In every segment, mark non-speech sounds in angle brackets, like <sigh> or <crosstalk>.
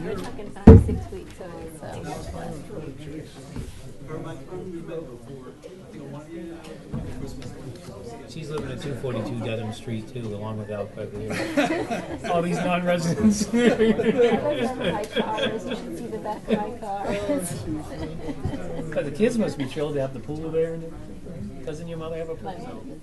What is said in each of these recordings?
We're talking five, six weeks away, so. She's living at 242 Dedham Street too, along with Al Quigley. <laughs> All <laughs> these non-residents. My cars, you should see the back of my car. But the kids must be thrilled to have the pool there. and everything. Doesn't your mother have a My pool? mom,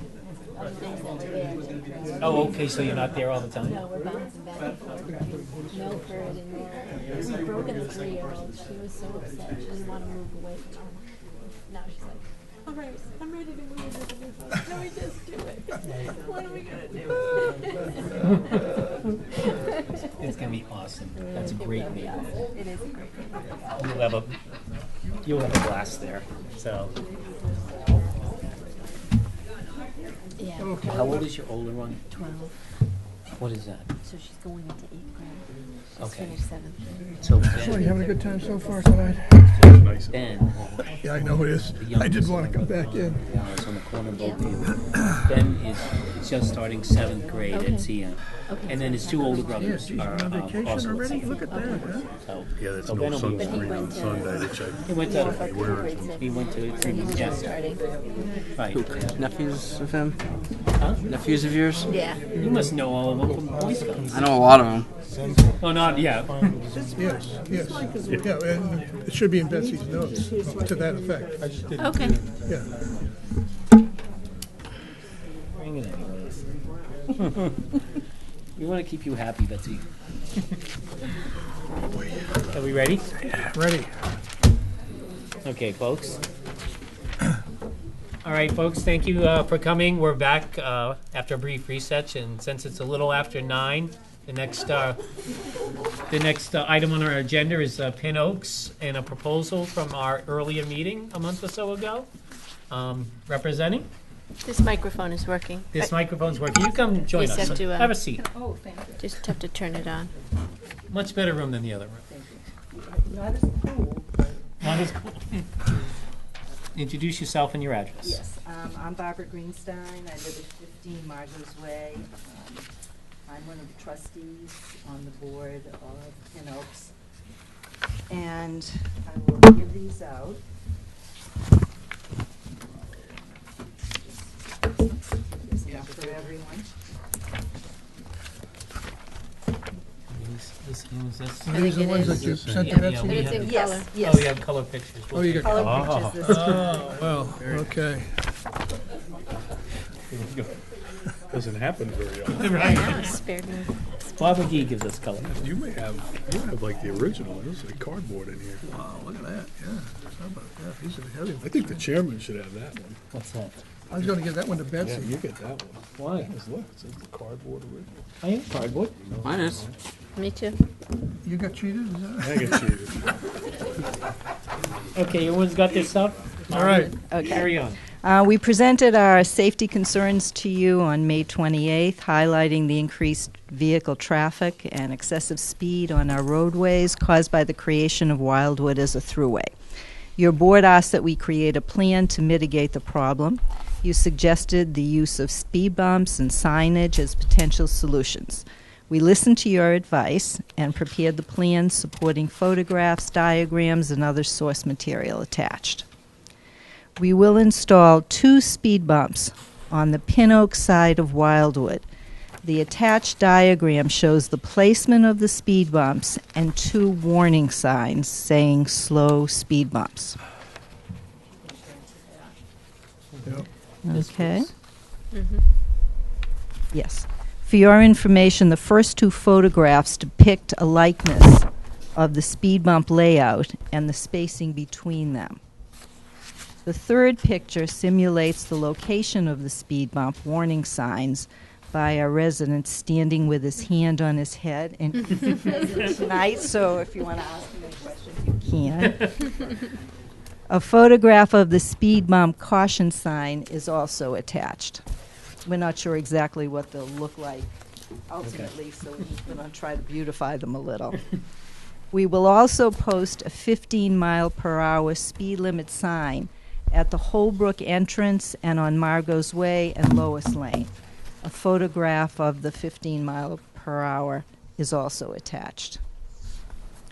I'm next out there. Oh, okay, so you're not there all the time? No, we're bouncing back and forth. between Milford and there. We've broken the three-year-old. She was so upset. She didn't want to move away from home. Now she's like, all right, I'm ready to move into the new house. Can we just do it? What are we gonna do? It's gonna be awesome. That's a great neighborhood. It is a great. You'll have a, you'll have a blast there, so. Yeah, How old is your older one? twelve. What is that? So she's going into eighth grade. She's Okay. finished seventh. So So Ben, you having a good time so far tonight? Ben, Yeah, I know it is. I did want to come back in. yeah, it's on the corner of both of you. <coughs> Ben is just starting seventh grade Okay. at CM. Okay. And then his two older Yeah, brothers she's are on uh, vacation also at already? CM. Look at that, huh? So, Yeah, that's so Ben no will be, sunscreen on Sunday, which he I, went Yeah, for to, tenth grade six. he went to, So he's yeah, just starting. right. nephews of him? Huh? Nephews of yours? Yeah. You must know all of them from Boy <laughs> Scouts. I know a lot of them. Oh, not yet. <laughs> Yes, yes. Yeah, and it should be in Betsy's notes to that effect. Okay. Yeah. Bring it anyways. We want to keep you happy, Betsy. Oh, Are we ready? Ready? Okay, folks. All right, folks, thank you uh, for coming. We're back uh, after a brief reset, and since it's a little after nine, the next, uh, the next uh, item on our agenda is uh, Pin Oaks and a proposal from our earlier meeting a month or so ago. Um, Representing, This microphone is working. this microphone's working. You come join Please us. have to, uh, Have a seat. Just have to turn it on. Much better room than the other room. Not as cool. <laughs> Introduce yourself and your address. Yes, um, I'm Barbara Greenstein, I live at fifteen Margo's Way. Um, I'm one of the trustees on the board of Pin Oaks. And I will give these out. Just give this out For everyone. This- this one is this. Are these the ones that you sent to Yeah. Yeah, we Betsy? It's have- in color. Yes, yes. Oh, you have color pictures. Oh, you got, Color pictures this time. Oh, well, okay. doesn't happen very often. Yeah, Oh, Spared me. Bob McGee gives us color. You may have, you have like the original, there's like cardboard in here. Wow, look at that, yeah. How about that? These are heavy. I think the chairman should have that one. What's that? I was gonna give that one to Betsy. You get that one. Why? Just Look, it's the cardboard original. I am cardboard. Mine is. Me too. You got cheated, is that? I get cheated. Okay, everyone's got their stuff? All right. Carry on. Uh, We presented our safety concerns to you on May 28th, highlighting the increased vehicle traffic and excessive speed on our roadways caused by the creation of Wildwood as a thruway. Your board asked that we create a plan to mitigate the problem. You suggested the use of speed bumps and signage as potential solutions. We listened to your advice and prepared the plan supporting photographs, diagrams, and other source material attached we will install two speed bumps on the Pin Oak side of Wildwood. The attached diagram shows the placement of the speed bumps and two warning signs saying slow speed bumps. Okay. Mm-hmm. Yes. For your information, the first two photographs depict a likeness of the speed bump layout and the spacing between them. The third picture simulates the location of the speed bump warning signs by a resident standing with his hand on his head and tonight, so if you want to ask him any questions, you can. a photograph of the speed bump caution sign is also attached. We're not sure exactly what they'll look like ultimately, so we're going to try to beautify them a little. We will also post a 15 mile per hour speed limit sign at the Holbrook entrance and on Margot's Way and Lois Lane. A photograph of the 15 mile per hour is also attached.